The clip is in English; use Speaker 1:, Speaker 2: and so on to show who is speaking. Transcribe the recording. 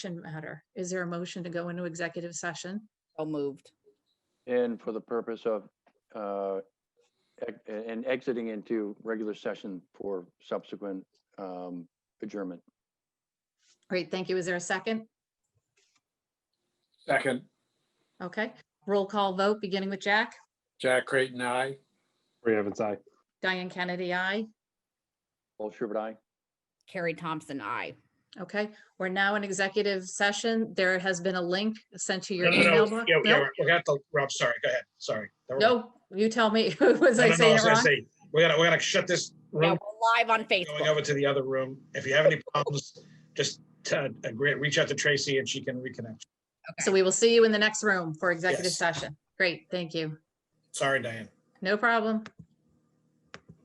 Speaker 1: matter. Is there a motion to go into executive session?
Speaker 2: So moved.
Speaker 3: And for the purpose of, uh, ex- and exiting into regular session for subsequent um, adjournment.
Speaker 1: Great, thank you. Is there a second?
Speaker 4: Second,
Speaker 1: Okay, roll call vote, beginning with Jack.
Speaker 4: Jack Creighton, aye.
Speaker 5: Ray Evans, aye.
Speaker 1: Diane Kennedy, aye.
Speaker 3: Paul Schubert, aye.
Speaker 2: Carrie Thompson, I.
Speaker 1: Okay, we're now in executive session. There has been a link sent to your
Speaker 6: No, no, no.
Speaker 1: email. box.
Speaker 6: Yeah, yeah,
Speaker 1: No,
Speaker 6: we got the, Rob, sorry, go ahead, sorry. Never mind.
Speaker 1: No, you tell me. Was
Speaker 6: No,
Speaker 1: I
Speaker 6: no, no, I
Speaker 1: saying it
Speaker 6: was gonna
Speaker 1: wrong?
Speaker 6: say, We gotta, we gotta shut this
Speaker 2: Yeah,
Speaker 6: room,
Speaker 2: we're live on
Speaker 6: going
Speaker 2: Facebook.
Speaker 6: over to the other room. If you have any problems, just uh, agree, reach out to Tracy and she can reconnect.
Speaker 1: So we will see you in the next room for executive
Speaker 6: Yes.
Speaker 1: session. Great, thank you.
Speaker 6: Sorry, Diane.
Speaker 1: No problem.